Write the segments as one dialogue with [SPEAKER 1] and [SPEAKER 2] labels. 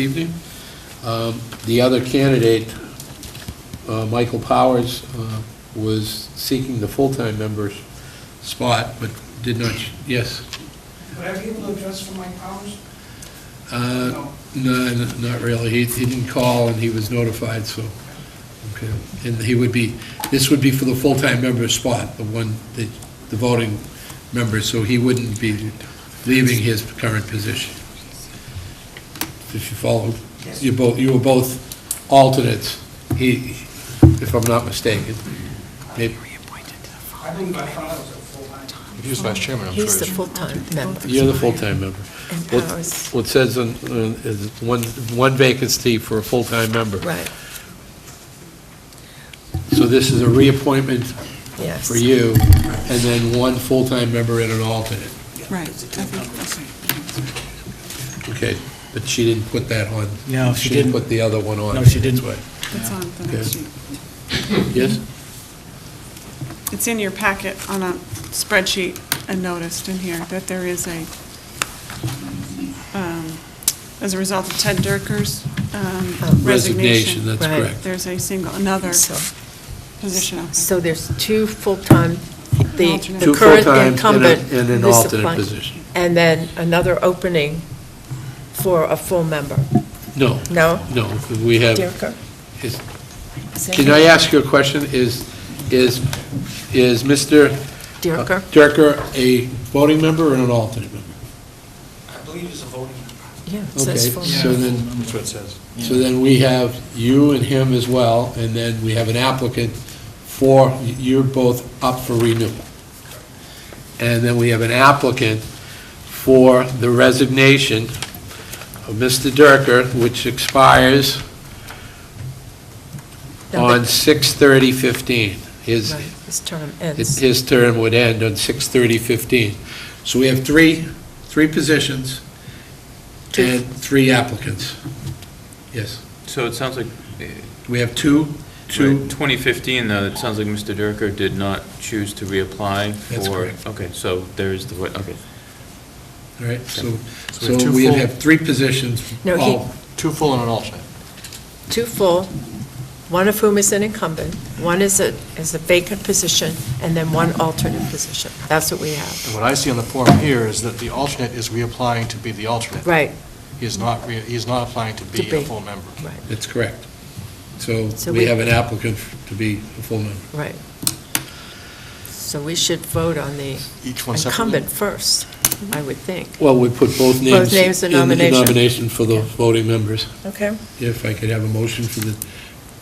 [SPEAKER 1] evening. Um, The other candidate, uh, Michael Powers, uh, was seeking the full-time member's spot, but did not, yes.
[SPEAKER 2] Would I be able to address for Mike Powers?
[SPEAKER 1] Uh,
[SPEAKER 2] No.
[SPEAKER 1] No, n- not really. He he didn't call, and he was notified, so, okay. And he would be, this would be for the full-time member's spot, the one, that the voting member, so he wouldn't be leaving his current position. If you follow,
[SPEAKER 2] Yes.
[SPEAKER 1] you both, you were both alternates, he, if I'm not mistaken. Maybe-
[SPEAKER 2] I believe I thought I was a full-time.
[SPEAKER 3] He was vice chairman, I'm sure.
[SPEAKER 4] He's the full-time member.
[SPEAKER 1] You're the full-time member.
[SPEAKER 4] And
[SPEAKER 1] What-
[SPEAKER 4] Powers,
[SPEAKER 1] What says on- on- is one one vacancy for a full-time member.
[SPEAKER 4] right,
[SPEAKER 1] So this is a reappointment
[SPEAKER 4] yes.
[SPEAKER 1] for you, and then one full-time member and an alternate.
[SPEAKER 5] Right, I think that's right.
[SPEAKER 1] Okay, but she didn't put that on.
[SPEAKER 6] No, she didn't.
[SPEAKER 1] put the other one on.
[SPEAKER 6] No, she didn't.
[SPEAKER 1] That's
[SPEAKER 5] It's on the next sheet.
[SPEAKER 1] why. Yes?
[SPEAKER 5] It's in your packet on a spreadsheet, I noticed in here, that there is a, um, as a result of Ted Durker's um,
[SPEAKER 4] Oh.
[SPEAKER 1] Resignation,
[SPEAKER 5] resignation,
[SPEAKER 1] that's
[SPEAKER 4] Right.
[SPEAKER 1] correct.
[SPEAKER 5] there's a single, another
[SPEAKER 4] So,
[SPEAKER 5] position open.
[SPEAKER 4] so there's two full-time, the
[SPEAKER 5] Alternate.
[SPEAKER 4] the
[SPEAKER 1] Two
[SPEAKER 4] current
[SPEAKER 1] full-times and a-
[SPEAKER 4] incumbent.
[SPEAKER 1] and an
[SPEAKER 4] this
[SPEAKER 1] alternate
[SPEAKER 4] appoint-
[SPEAKER 1] position.
[SPEAKER 4] And then another opening for a full member.
[SPEAKER 1] No.
[SPEAKER 4] No?
[SPEAKER 1] No, we have,
[SPEAKER 4] Durker?
[SPEAKER 1] is- can I ask you a question? Is, is, is Mr.
[SPEAKER 4] Durker?
[SPEAKER 1] Durker a voting member or an alternate member?
[SPEAKER 2] I believe he's a voting member.
[SPEAKER 4] Yeah, it
[SPEAKER 1] Okay,
[SPEAKER 4] says full.
[SPEAKER 1] so then,
[SPEAKER 3] That's what it says.
[SPEAKER 1] So then we have you and him as well, and then we have an applicant for, you're both up for renewal. And then we have an applicant for the resignation of Mr. Durker, which expires
[SPEAKER 4] No,
[SPEAKER 1] on
[SPEAKER 4] but-
[SPEAKER 1] 6/30/15. His,
[SPEAKER 4] right, His term ends.
[SPEAKER 1] his term would end on 6/30/15. So we have three, three positions
[SPEAKER 4] Two.
[SPEAKER 1] and three applicants. Yes.
[SPEAKER 7] So it sounds like, eh,
[SPEAKER 1] We have two,
[SPEAKER 7] to
[SPEAKER 1] two
[SPEAKER 7] 2015, though, it sounds like Mr. Durker did not choose to reapply for...
[SPEAKER 1] That's correct.
[SPEAKER 7] Okay, so there is the, vo- okay.
[SPEAKER 1] All right, so,
[SPEAKER 3] So we have
[SPEAKER 1] so
[SPEAKER 3] two
[SPEAKER 1] we
[SPEAKER 3] full-
[SPEAKER 1] have three positions,
[SPEAKER 4] No, he-
[SPEAKER 1] all,
[SPEAKER 3] Two full and an alternate.
[SPEAKER 4] Two full, one of whom is an incumbent, one is a, is a vacant position, and then one alternate position. That's what we have.
[SPEAKER 3] And what I see on the form here is that the alternate is reapplying to be the alternate.
[SPEAKER 4] Right,
[SPEAKER 3] He is not, re- he is not applying to be
[SPEAKER 4] To
[SPEAKER 3] a
[SPEAKER 4] be.
[SPEAKER 3] full member.
[SPEAKER 4] right,
[SPEAKER 1] that's correct. So
[SPEAKER 4] So
[SPEAKER 1] we
[SPEAKER 4] we-
[SPEAKER 1] have an applicant to be a full member.
[SPEAKER 4] right. So we should vote on the
[SPEAKER 3] Each one separately.
[SPEAKER 4] incumbent first, I would think.
[SPEAKER 1] Well, we put both names.
[SPEAKER 4] names in
[SPEAKER 1] the
[SPEAKER 4] nomination.
[SPEAKER 1] nomination for the voting members.
[SPEAKER 4] Okay.
[SPEAKER 1] If I could have a motion for the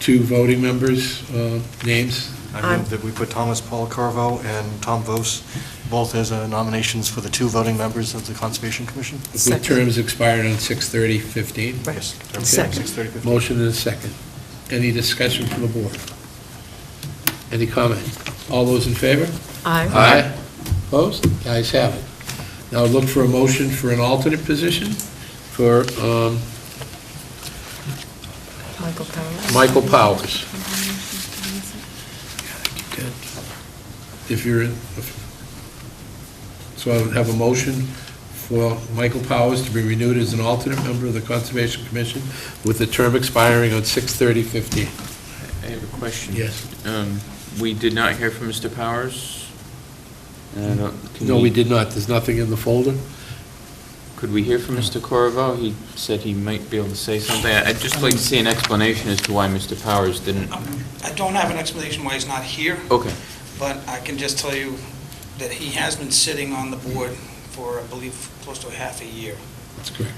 [SPEAKER 1] two voting members' uh, names,
[SPEAKER 3] I move that we put Thomas Paul Carvo and Tom Vos both as uh, nominations for the two voting members of the Conservation Commission.
[SPEAKER 1] with
[SPEAKER 4] Second.
[SPEAKER 1] terms expiring on 6/30/15.
[SPEAKER 4] Right.
[SPEAKER 3] Yes.
[SPEAKER 4] Second.
[SPEAKER 3] Six thirty fifteen.
[SPEAKER 1] Motion and a second. Any discussion from the board? Any comment? All those in favor?
[SPEAKER 4] Aye.
[SPEAKER 1] Aye. Opposed? The ayes have it. Now look for a motion for an alternate position for um,
[SPEAKER 4] Michael Powers.
[SPEAKER 1] Michael Powers. If you're, in- so I would have a motion for Michael Powers to be renewed as an alternate member of the Conservation Commission with the term expiring on 6/30/15.
[SPEAKER 7] I have a question.
[SPEAKER 1] Yes.
[SPEAKER 7] Um, We did not hear from Mr. Powers? And I don't- can
[SPEAKER 1] No, we did not. There's nothing in the folder.
[SPEAKER 7] Could we hear from Mr. Corvo? He said he might be able to say something. I- I'd just like to see an explanation as to why Mr. Powers didn't...
[SPEAKER 2] Um, I don't have an explanation why he's not here,
[SPEAKER 7] Okay,
[SPEAKER 2] but I can just tell you that he has been sitting on the board for, I believe, close to a half a year.
[SPEAKER 1] That's correct.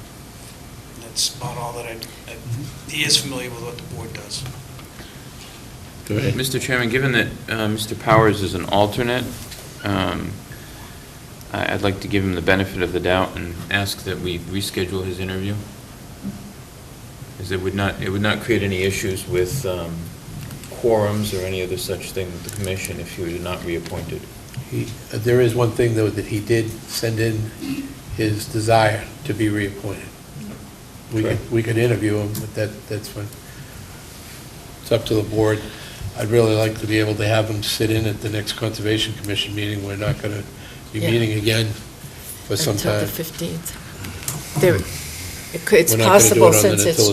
[SPEAKER 2] That's about all that I, I- he is familiar with what the board does.
[SPEAKER 1] Go ahead.
[SPEAKER 7] Mr. Chairman, given that uh, Mr. Powers is an alternate, um, I- I'd like to give him the benefit of the doubt and ask that we reschedule his interview, as it would not, it would not create any issues with um, quorums or any other such thing with the commission if he were not reappointed.
[SPEAKER 1] He- There is one thing, though, that he did send in his desire to be reappointed. We could, we could interview him, but that, that's fine. It's up to the board. I'd really like to be able to have him sit in at the next Conservation Commission meeting. We're not going to be
[SPEAKER 4] Yeah.
[SPEAKER 1] meeting again for some
[SPEAKER 4] Until
[SPEAKER 1] time.
[SPEAKER 4] the 15th. There, It could- It's
[SPEAKER 1] We're not gonna do it
[SPEAKER 4] possible
[SPEAKER 1] on the-
[SPEAKER 4] since
[SPEAKER 1] until
[SPEAKER 4] it's